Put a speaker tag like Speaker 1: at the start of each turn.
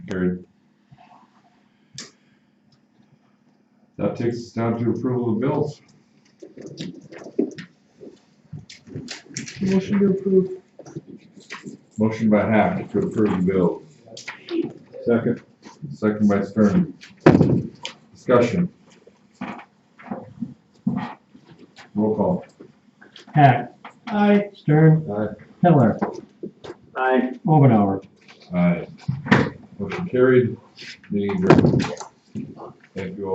Speaker 1: Carried. That takes us down to approval of bills.
Speaker 2: Motion to approve.
Speaker 1: Motion by Hack to approve the bill. Second. Second by Stern. Discussion. Roll call.
Speaker 3: Hack. Aye. Stern.
Speaker 1: Aye.
Speaker 3: Pillar. Aye. Omenauer.
Speaker 1: Aye. Motion carried. Meeting adjourned. Thank you all.